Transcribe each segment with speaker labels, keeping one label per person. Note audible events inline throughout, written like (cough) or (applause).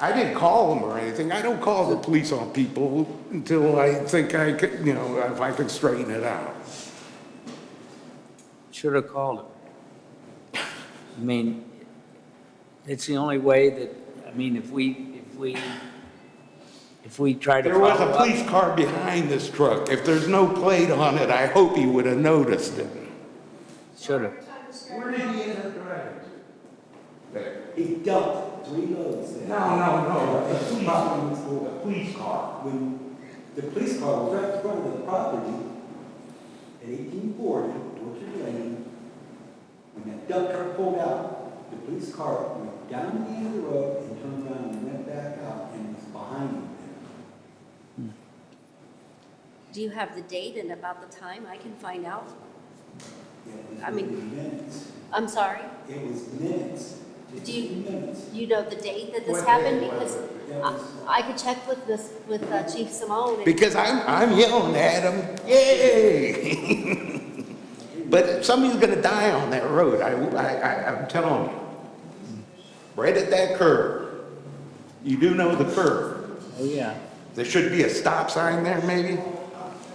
Speaker 1: I didn't call them or anything. I don't call the police on people until I think I could, you know, if I can straighten it out.
Speaker 2: Should have called her. I mean, it's the only way that, I mean, if we, if we, if we try to
Speaker 1: There
Speaker 2: follow
Speaker 1: was a
Speaker 2: up.
Speaker 1: police car behind this truck. If there's no plate on it, I hope he would have noticed it.
Speaker 2: Should have.
Speaker 1: Where did he end up driving?
Speaker 3: He dumped three loads there.
Speaker 1: No, no, no, the police-
Speaker 3: no.
Speaker 1: Police car.
Speaker 3: When the police car was right in front of the property at eighteen forty, Orchard Lane, when that dump truck pulled out, the police car went down the end of the road and turned around and went back out and was behind him.
Speaker 4: Do you have the date and about the time? I can find out.
Speaker 3: It
Speaker 4: I
Speaker 3: was
Speaker 4: mean-
Speaker 3: within minutes.
Speaker 4: I'm sorry?
Speaker 3: It was minutes. Just
Speaker 4: Do you-
Speaker 3: Minutes.
Speaker 4: You know the date that this
Speaker 1: What
Speaker 4: happened?
Speaker 1: date was
Speaker 4: Because
Speaker 3: That
Speaker 4: I-
Speaker 3: was-
Speaker 4: I could check with this, with uh, Chief Simone. and-
Speaker 1: Because I'm, I'm yelling at him, yay! (laughs) But somebody's gonna die on that road, I, I, I- I'm telling you. Right at that curve. You do know the curve.
Speaker 2: Oh, yeah.
Speaker 1: There should be a stop sign there, maybe?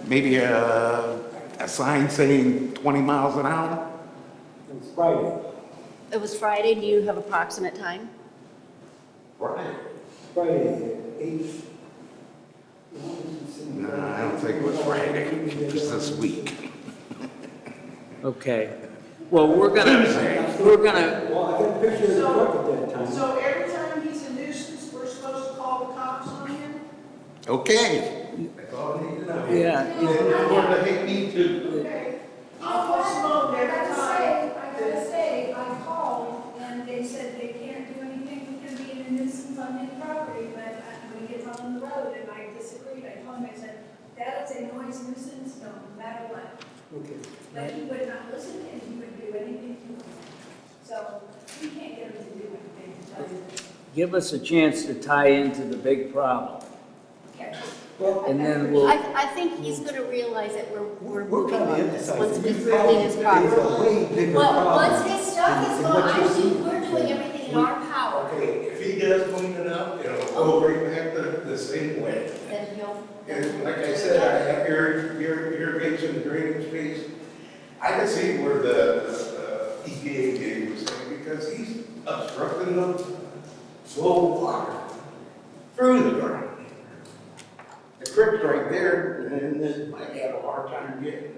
Speaker 1: Maybe a, a sign saying 20 miles an hour?
Speaker 3: It was Friday,
Speaker 4: It was Friday. Do you have approximate time?
Speaker 1: Right.
Speaker 3: Friday at eight.
Speaker 1: No, I don't think it was Friday, it was this week.
Speaker 2: Okay. Well, we're gonna, we're gonna,
Speaker 3: Well, I got a picture of the truck at that time.
Speaker 5: So every time he's a nuisance, we're supposed to call the cops on him?
Speaker 1: Okay.
Speaker 2: yeah, you-
Speaker 5: Okay. I'll post them on
Speaker 6: I
Speaker 5: every
Speaker 6: gotta
Speaker 5: time.
Speaker 6: say, I gotta say, I called and they said they can't do anything because being a nuisance on his property, but uh, when he gets on the road and I disagreed, I told him, I said, that is a noise nuisance, no matter what.
Speaker 3: Okay.
Speaker 6: But he would not listen and he would do anything he wanted. So you can't get him to do anything, so
Speaker 2: give us a chance to tie into the big problem.
Speaker 6: catch him.
Speaker 2: And then
Speaker 4: I,
Speaker 2: we'll,
Speaker 4: I think he's going to realize that we're,
Speaker 3: We're
Speaker 4: we're moving
Speaker 3: trying to
Speaker 4: on this,
Speaker 3: emphasize.
Speaker 4: once
Speaker 3: that
Speaker 4: we
Speaker 3: you
Speaker 4: clean his
Speaker 3: found
Speaker 4: property.
Speaker 3: There's a way bigger
Speaker 4: Well, once
Speaker 3: problem.
Speaker 4: his stuff is
Speaker 3: And
Speaker 4: gone,
Speaker 3: what you
Speaker 4: I
Speaker 3: see-
Speaker 4: think we're doing everything in our power,
Speaker 7: If he does clean it up, it'll go right back the, the same way.
Speaker 4: then he'll.
Speaker 7: And like I said, I have your, your, your and drainage piece. I can see where the, uh, EPA gig was saying, because he's obstructing the flow of water through the ground. The creek's right there, and then I have a hard time getting.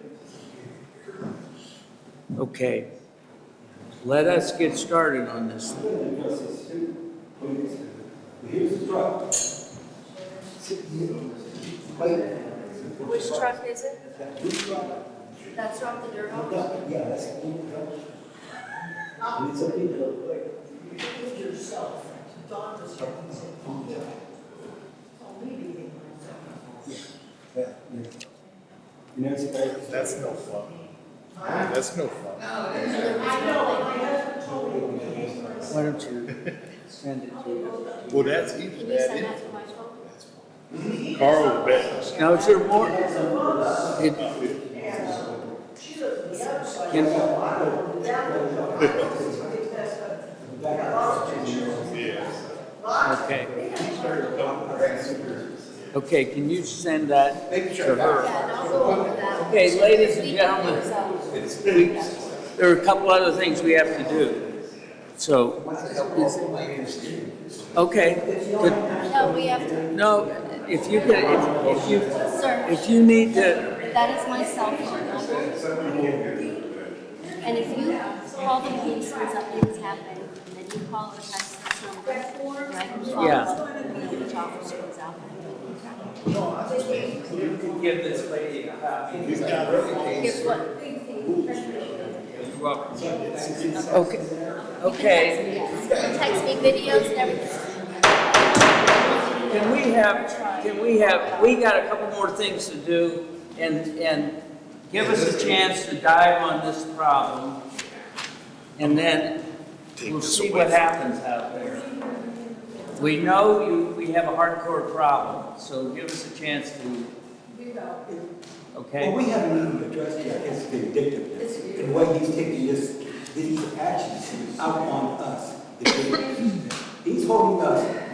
Speaker 2: okay. Let us get started on this.
Speaker 3: I'm gonna address this too. Wait a second. Here's the truck. Wait.
Speaker 4: Which truck is it?
Speaker 3: This truck,
Speaker 4: That's not the dirt road?
Speaker 3: yeah, yeah, that's. And it's a big truck.
Speaker 5: Give yourself. Don was here, he said, "Oh, maybe they might."
Speaker 3: Yeah, yeah. And that's about.
Speaker 8: That's no fun. That's no fun.
Speaker 5: I know, my husband told me.
Speaker 2: Why don't you send it to us?
Speaker 8: Well, that's easy.
Speaker 4: Can you send that to my phone?
Speaker 8: Carl, bet.
Speaker 2: Now, is there more? It- Can, okay. Okay, can you send that to her?
Speaker 4: Yeah, and I'll go over that.
Speaker 2: Okay, ladies and
Speaker 4: We can
Speaker 2: gentlemen.
Speaker 4: use that.
Speaker 2: There are a couple other things we have to do, so. Okay, good.
Speaker 4: No, we have to,
Speaker 2: no, if you could, if- if you,
Speaker 4: sir,
Speaker 2: if you need to,
Speaker 4: that is my cell phone number. And if you call the police when something's happened, then you call the Texas number, and I can follow
Speaker 2: Yeah.
Speaker 4: up with the officer who's out there.
Speaker 2: give this lady a copy.
Speaker 4: Guess what?
Speaker 2: Okay, okay.
Speaker 4: Yes. Text me videos and everything.
Speaker 2: Can we have, can we have, we got a couple more things to do, and, and give us a chance to dive on this problem, and then we'll see what happens out there. We know you, we have a hardcore problem, so give us a chance to,
Speaker 3: Well,
Speaker 2: okay?
Speaker 3: we haven't even addressed yet his vindictiveness and what he's taking this, these actions out on us. the victims. He's holding us